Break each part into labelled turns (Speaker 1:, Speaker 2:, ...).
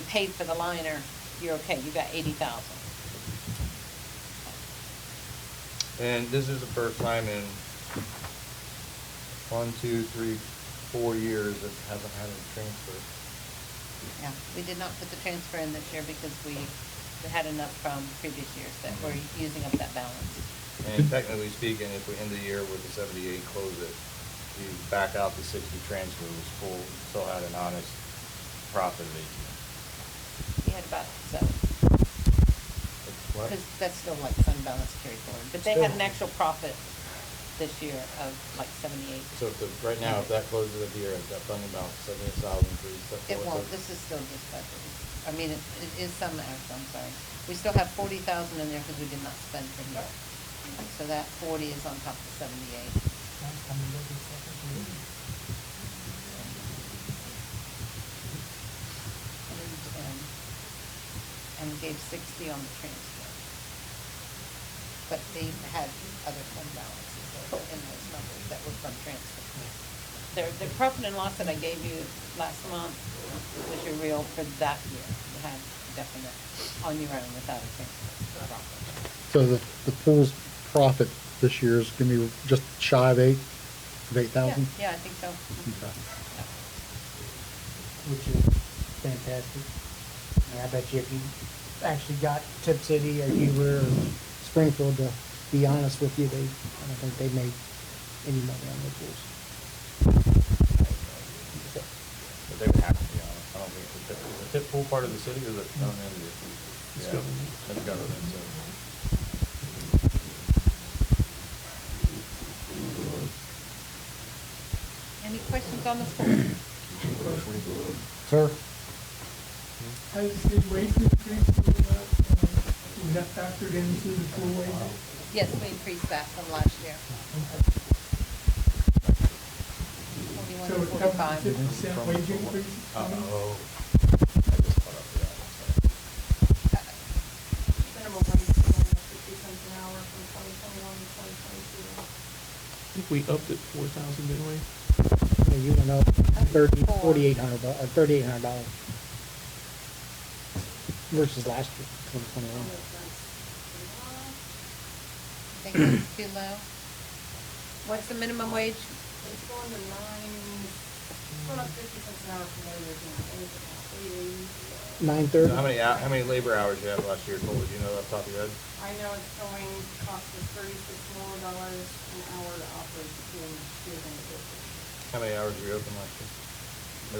Speaker 1: paid for the liner, you're okay, you got eighty thousand.
Speaker 2: And this is the first time in one, two, three, four years that hasn't had a transfer.
Speaker 1: Yeah, we did not put the transfer in this year because we, we had enough from previous years that we're
Speaker 2: Mm-hmm.
Speaker 1: using up that balance.
Speaker 2: And technically speaking, if we end the year with a seventy-eight, close it, you back out the sixty transfer, was full, still had an honest profit of eighteen.
Speaker 1: We had about, so,
Speaker 2: That's what-
Speaker 1: because that's still like fund balance carried forward. But they had an
Speaker 2: Still.
Speaker 1: actual profit this year of like seventy-eight.
Speaker 2: So if the, right now, if that closes at the year, if that funding balance, seventy-eight thousand, three,
Speaker 1: It
Speaker 2: seven.
Speaker 1: won't, this is still just budget. I mean, it, it is some extra, I'm sorry. We still have forty thousand in there because we did not spend for here. So that forty is on top of the seventy-eight. Hundred and ten. And we gave sixty on the transfer. But they had other fund balances that were in those numbers that were from transfer. Their, their profit and loss that I gave you last month was your real for that year. You had definite on your own without a transfer. profit.
Speaker 3: So the, the pool's profit this year is gonna be just shy of eight, of eight thousand?
Speaker 1: Yeah, yeah, I think so. Mhm.
Speaker 4: which is fantastic. I mean, I bet you if you actually got Tip City or Huber or Springfield, to be honest with you, they, I don't think they made any money on their pools.
Speaker 2: But they would have to be honest, I don't think, it's a tip- is the tip pool part of the city or is it town entity? It's government. It's government, so.
Speaker 1: Any questions on the floor?
Speaker 3: Sir?
Speaker 5: Has the wage increase uh, was that factored into the full wage?
Speaker 1: Yes, we increased that from last year. Forty-one
Speaker 5: So it
Speaker 1: to
Speaker 5: comes to
Speaker 1: forty-five.
Speaker 5: fifty percent wage increase?
Speaker 2: Oh. Uh-oh. I just caught up with that, sorry.
Speaker 6: minimum wage is going up fifty cents an hour from twenty twenty-one to twenty twenty-two.
Speaker 7: I think we upped it four thousand, didn't we?
Speaker 4: I mean, you went up thirty,
Speaker 1: Four.
Speaker 4: forty-eight hundred, bu- or thirty-eight hundred dollars versus last year, twenty twenty-one.
Speaker 1: Think it's too low? What's the minimum wage?
Speaker 6: It's going to nine, it's going up fifty cents an hour from where you're doing anything else, eight eighty.
Speaker 4: Nine thirty?
Speaker 2: How many, hou- how many labor hours you have last year, Cole, do you know off the top of your head?
Speaker 6: I know it's going, cost us thirty-six more dollars an hour to operate the field, field and the business.
Speaker 2: How many hours were you open last year?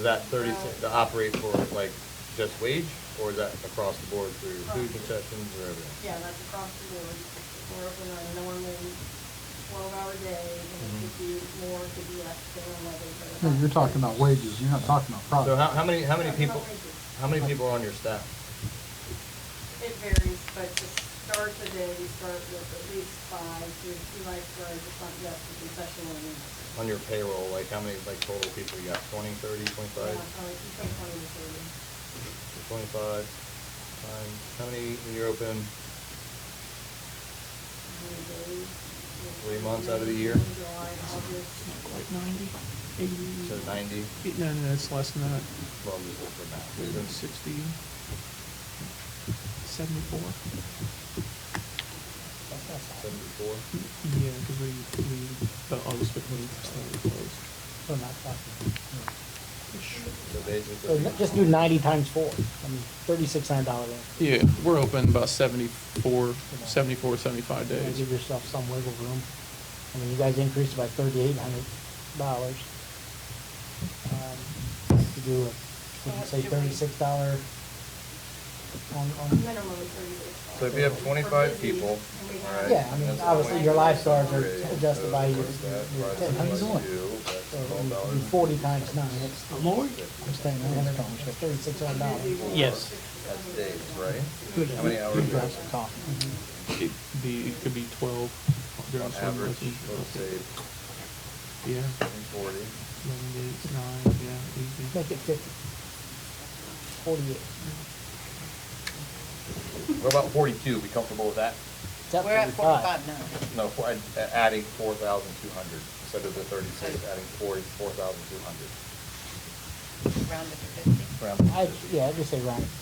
Speaker 2: Is that thirty, to operate for like just wage, or is that across the board through food concessions or everything?
Speaker 6: Yeah, that's across the board, we're open on a normal twelve-hour day, and it could be more, it could be less, depending on weather. but that's-
Speaker 3: You're talking about wages, you're not talking about
Speaker 2: So how,
Speaker 3: profit.
Speaker 2: how many, how many
Speaker 6: That's
Speaker 2: people,
Speaker 6: about wages.
Speaker 2: how many people are on your staff?
Speaker 6: It varies, but to start the day, we start with at least five, there's two lifeguards, a uh, front desk, a concession woman.
Speaker 2: On your payroll, like how many, like total people you got, twenty, thirty, twenty-five?
Speaker 6: Yeah, probably between twenty to thirty.
Speaker 2: Twenty-five, times, how many when you're open,
Speaker 6: Three days.
Speaker 2: Three months out of the year?
Speaker 6: July, August.
Speaker 7: Like ninety, eighty?
Speaker 2: so ninety,
Speaker 7: Eight, no, no, it's less than that.
Speaker 2: well, just look for math.
Speaker 7: It's been sixty, seventy-four?
Speaker 2: Seventy-four?
Speaker 7: Yeah, because we, we, about August fifteenth, started closed.
Speaker 4: So not talking.
Speaker 2: So
Speaker 4: So
Speaker 2: basically.
Speaker 4: n- just do ninety times four, I mean, thirty-six hundred dollars.
Speaker 7: Yeah, we're open about seventy-four, seventy-four, seventy-five
Speaker 4: You know,
Speaker 7: days.
Speaker 4: Give yourself some wiggle room. I mean, you guys increased by thirty-eight hundred dollars. Um, To do, a- would you say
Speaker 1: Well, Uh, should we-
Speaker 4: thirty-six dollar on, on,
Speaker 6: Minimum of thirty days.
Speaker 2: So if you have twenty-five people, alright.
Speaker 4: Yeah, I mean,
Speaker 2: that's
Speaker 4: obviously, your
Speaker 2: 20.
Speaker 4: lifeguards are
Speaker 2: Three,
Speaker 4: adjusted by
Speaker 2: so
Speaker 4: your-
Speaker 2: what's that?
Speaker 4: your-
Speaker 2: Right,
Speaker 4: how you
Speaker 2: divided by
Speaker 4: doing?
Speaker 2: two, that's
Speaker 4: so
Speaker 2: twelve
Speaker 4: you- you
Speaker 2: dollars.
Speaker 4: forty times nine, that's,
Speaker 7: The Lord?
Speaker 4: that's thirty-six hundred dollars.
Speaker 7: Yes.
Speaker 2: That's days, right? How many hours?
Speaker 4: Grab
Speaker 2: is
Speaker 4: some coffee.
Speaker 7: It'd be, it could be twelve
Speaker 2: it?
Speaker 7: during
Speaker 2: On
Speaker 7: summer.
Speaker 2: average, let's
Speaker 7: months.
Speaker 2: say,
Speaker 7: Yeah,
Speaker 2: forty.
Speaker 7: eleven days, nine, yeah, easy.
Speaker 4: Make it fifty. Forty-eight.
Speaker 2: What about forty-two, be comfortable with that?
Speaker 4: It's up
Speaker 1: We're at
Speaker 4: 45.
Speaker 1: forty-five now.
Speaker 2: No, for- uh, adding four thousand two hundred, instead of the thirty-six, adding forty, four thousand two hundred.
Speaker 1: Rounded to fifty.
Speaker 2: parameters.
Speaker 4: I, yeah, I'd just say round it